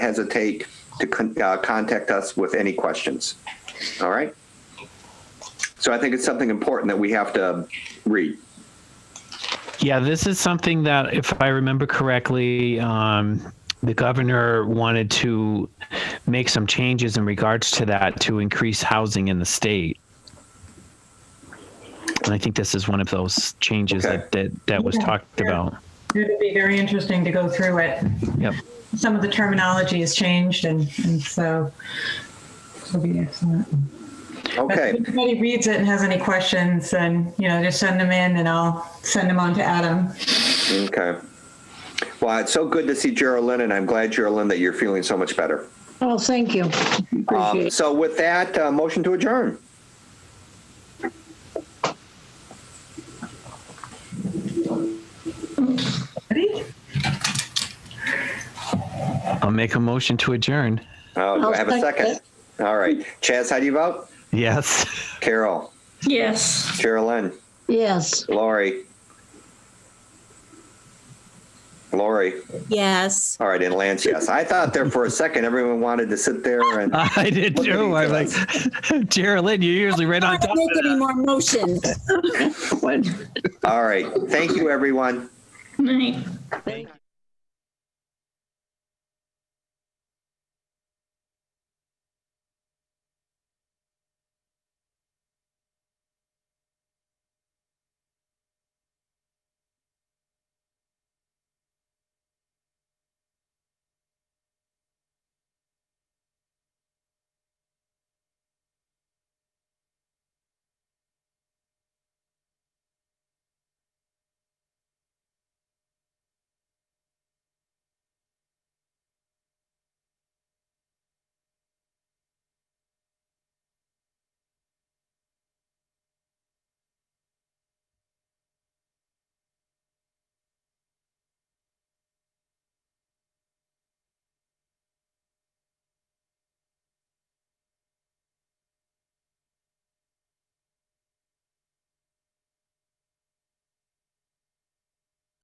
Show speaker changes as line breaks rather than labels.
hesitate to con- uh, contact us with any questions. All right? So I think it's something important that we have to read.
Yeah, this is something that, if I remember correctly, um, the governor wanted to make some changes in regards to that to increase housing in the state. And I think this is one of those changes
Okay.
that, that that was
Yeah,
talked
yeah.
about.
It'd be very interesting to go through it.
Yep.
Some of the terminology has changed, and, and so it'll be excellent. But
Okay.
If anybody reads it and has any questions, then, you know, just send them in and I'll send them on to Adam.
Okay. Well, it's so good to see Geraldine, and I'm glad, Geraldine, that you're feeling so much better.
Oh, thank you.
Um,
Appreciate it.
so with that, uh, motion to adjourn.
Ready?
I'll make a motion to adjourn.
Uh, do I
I'll
have a second?
second
All right. Chaz, how do you vote?
Yes.
Carol,
Yes.
Geraldine,
Yes.
Lori. Lori.
Yes.
All right, and Lance, yes. I thought there for a second everyone wanted to sit there and
I did too. Oh, I like, Geraldine, you're usually right on
Not
top.
make any more motions.
all right. Thank you, everyone.
Thank you.